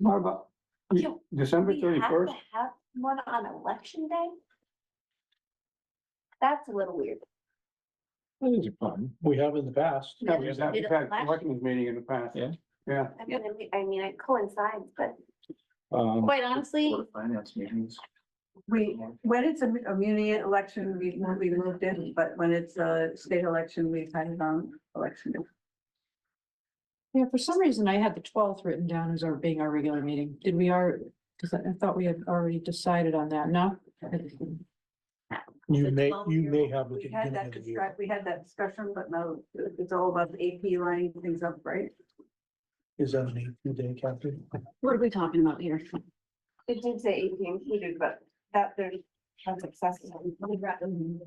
Marva, you- Do December we have thirty-first, to Have one on election day? That's a little weird. That is a problem. We have in the past. yeah, we've had, we've Did it had last- selectmen's meeting in the past. Yeah. Yeah, I mean, it- I mean, it coincides, but Um, quite honestly, finance meetings. We, when it's a mu- a muni election, we, we moved in, but when it's a state election, we've had it on um, election. day. Yeah, for some reason I had the twelfth written down as our being our regular meeting. Did we are, because I I thought we had already decided on that, no? You The may, 12 you year may old, have. at the We had beginning that of the year. discussion, we had that discussion, but no, it's all about the AP lining things up, right? Is that an eight-year day, Captain? What are we talking about here? it did say AP included, but that there's that's accessible. If you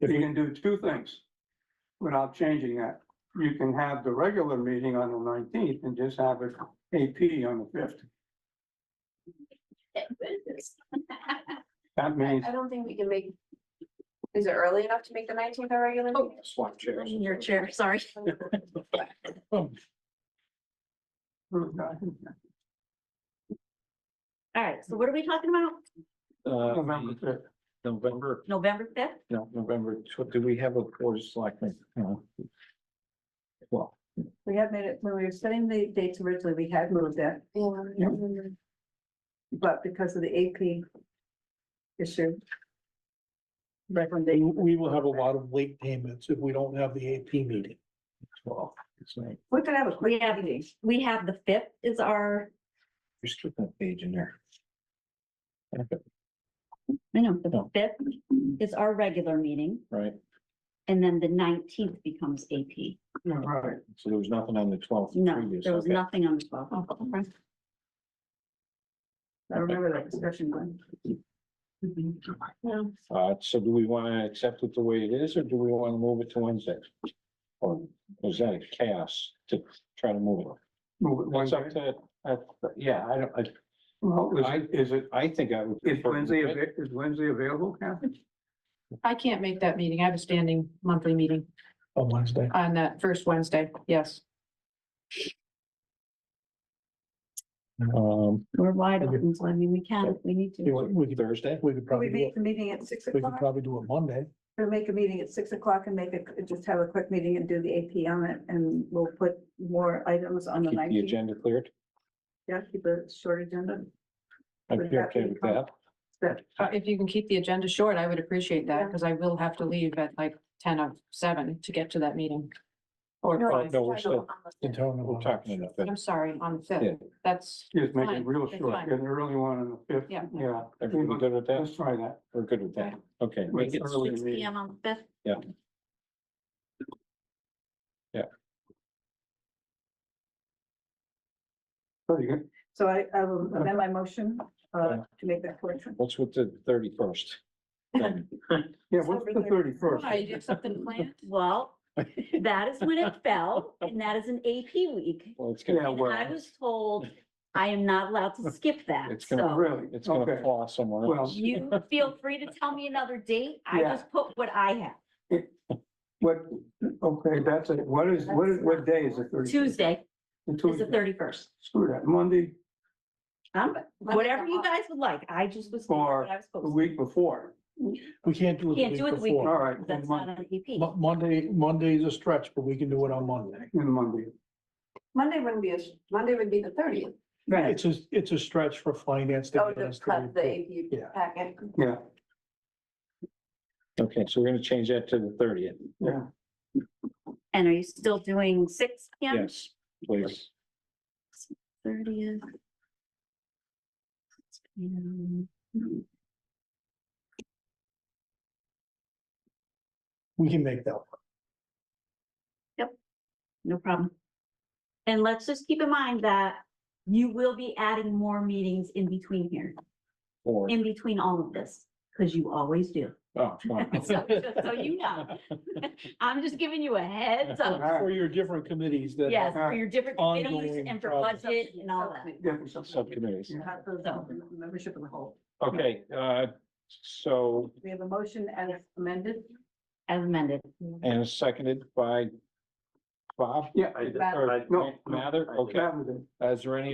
we- can do two things without changing that. You can have the regular meeting on the nineteenth and just have it AP on the fifth. That I means, I don't think we can make, is it early enough to make the nineteenth a regular? meeting? Swap chairs. Oh, Your chair, sorry. All right, so what are we talking about? Uh, November the- fifth, November, November fifth? no, November, tw- do we have a board of selectmen? No. Well, We had made it, when we were setting the dates originally, we had moved that, Yep. but because of the AP issue. we, Recommendation, we will have a lot of late payments if we don't have the AP meeting. Well, it's like, we could have a quick Yeah. meeting. We have the fifth is our, just put that page in there. I know, the No. fifth is our regular meeting Right, and then the nineteenth becomes AP. Yeah, right, so there was nothing on the twelfth. No, there was nothing on the twelfth. I remember that discussion going. Mm-hmm. Uh, so do we want to accept it the way it is, or do we want to move it to Wednesday? Or is that a chaos to try to move it? move it one It's up day. to, uh, yeah, I don't, Well, I- is, is it, I, I think I would. is prefer- Wednesday, avai- is Wednesday available, Kathy? I can't make that meeting. I have a standing monthly meeting On Wednesday. on that first Wednesday, yes. Um, We're wide open, so I mean, we can, if we need to. Thursday? We could We make the meeting at six o'clock, probably do it Monday. we'll make a meeting at six o'clock and make a, just have a quick meeting and do the AP on it, and we'll put more items on Keep the the nineteenth. agenda cleared. Yeah, keep a short agenda. I'd Would be that okay be with that. That, Uh, If you can keep the agenda short, I would appreciate that Yeah. because I will have to leave at like ten of seven to get to that meeting. Or, No, five. no, we're still Unless- we're talking about that. I'm sorry, on the Yeah. fifth, that's, Just make it Fine, real it's short, fine. get an early one on the fifth, Yeah. yeah, Everyone good with that? let's try that. We're good with that. Okay. Make it early Six P meeting. M on the fifth. Pretty good. so I, I will amend my motion, uh, to make that correction. What's with the thirty-first? Yeah, what's the thirty-first? why, you have something planned? Well, that is when it fell and that is an AP week. Well, it's Yeah, gonna, And I well. was told I am not allowed to skip that, It's gonna so. Oh, Really? it's Okay. gonna fall somewhere Well, else. You feel free to tell me another date. I Yeah. just put what I have. What, okay, that's it. What is, what is, what day is the thirty? Tuesday is the thirty-first. Screw that. Monday, Um, whatever you guys would like. I just was. told Or what I was the supposed to. week before. We can't do it. Can't do it the week All before. right, then That's not E Monday, an EP. Mo- Monday, Monday is a stretch, but we can do it on Monday. then Monday. Monday wouldn't be a, Monday would be the thirtieth. Right. It's a, it's a stretch for finance. to Oh, get us the, to cut report. the Yeah. AP packet. Yeah, Okay, so we're gonna change that to the thirtieth, yeah. And are you still doing six P M? Yes. please. Thirtieth. We can make that. work. No problem. And let's just keep in mind that you will be adding more meetings in between here, Or, in between all of this, because you always do. oh, fine. So just so you know, I'm just giving you a heads up. For your different committees that. Yes, for your different committees Ongoing and for process. budget and all that. Different subject. Subcommittees. Cut those out, Membership of the whole. Okay, uh, so, We have a motion as amended. As amended. and seconded by Bob? Yeah. Matt- Or I- Ma- Mather, okay. Saturday. Is there any